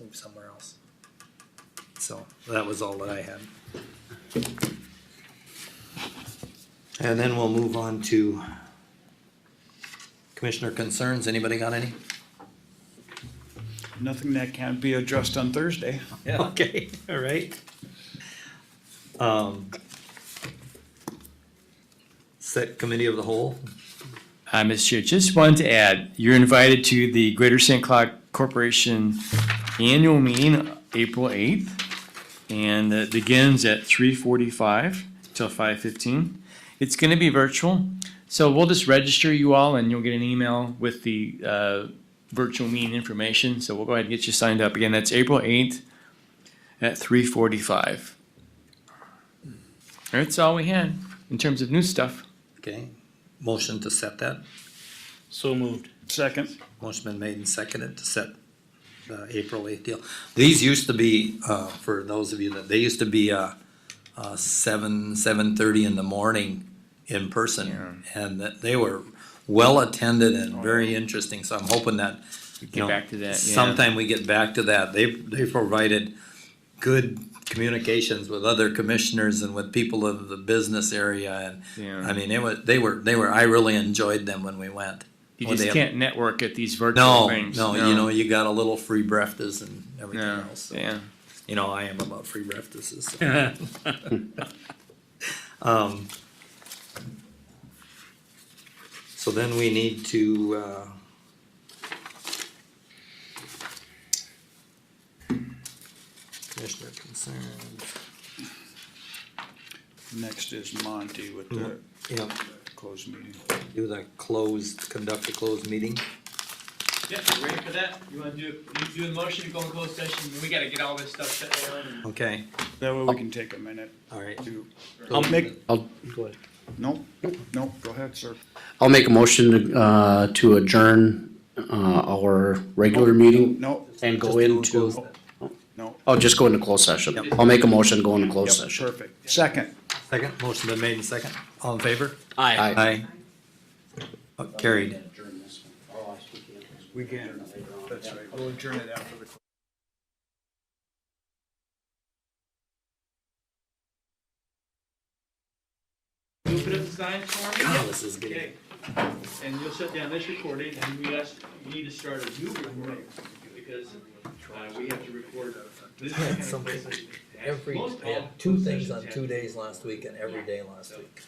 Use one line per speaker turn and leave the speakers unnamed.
move somewhere else. So that was all that I had. And then we'll move on to commissioner concerns. Anybody got any?
Nothing that can't be addressed on Thursday.
Okay, all right. Um. Set committee of the whole.
Uh, Mr. Chair, just wanted to add, you're invited to the Greater St. Cloud Corporation Annual Meeting, April eighth. And it begins at three forty-five till five fifteen. It's gonna be virtual, so we'll just register you all and you'll get an email with the, uh, virtual meeting information. So we'll go ahead and get you signed up. Again, that's April eighth at three forty-five. That's all we had in terms of new stuff.
Okay, motion to set that.
So moved.
Second,
Motion been made and seconded to set the April eighth deal. These used to be, uh, for those of you that, they used to be, uh, uh, seven, seven thirty in the morning in person. And that they were well attended and very interesting, so I'm hoping that, you
Oh, Get
know,
back to that, yeah.
sometime we get back to that. They, they provided good communications with other commissioners and with people of the business area and,
Yeah.
I mean, it was, they were, they were, I really enjoyed them when we went.
You
When
just
they-
can't network at these virtual
no,
things.
no, you know, you got a little free breakfast and everything
no,
else. so-
yeah.
You know, I am about free breakfasts. so. um, so then we need to uh, commissioner concerns.
next is Monty with the
Yeah,
closed meeting.
do the closed, conduct a closed meeting.
Yeah, you ready for that? You wanna do, you do a motion to go in closed session, we gotta get all this stuff set down and.
Okay,
That way we can take a minute
all right.
to,
I'll
Um,
make-
I'll, go ahead.
no, no, go ahead, sir.
I'll make a motion to, uh, to adjourn, uh, our regular meeting
No,
and
Just
go
do a
into,
closed-
no.
oh, just go into closed session.
Yep.
I'll make a motion to go into closed
Yep,
session.
Perfect. Second,
Second, motion been made and second. All in favor?
Aye.
Aye. Uh, Carried.
we can, that's right, we'll adjourn it after the.
You'll put up the signs for me?
God, this is getting.
Okay, and you'll shut down this recording, and we ask, we need to start a new recording, because, uh, we have to record. this
I had
kind of
something
place.
every,
Most
I
all
had two
closed
things
sessions
on
have
two days last week and every day last week.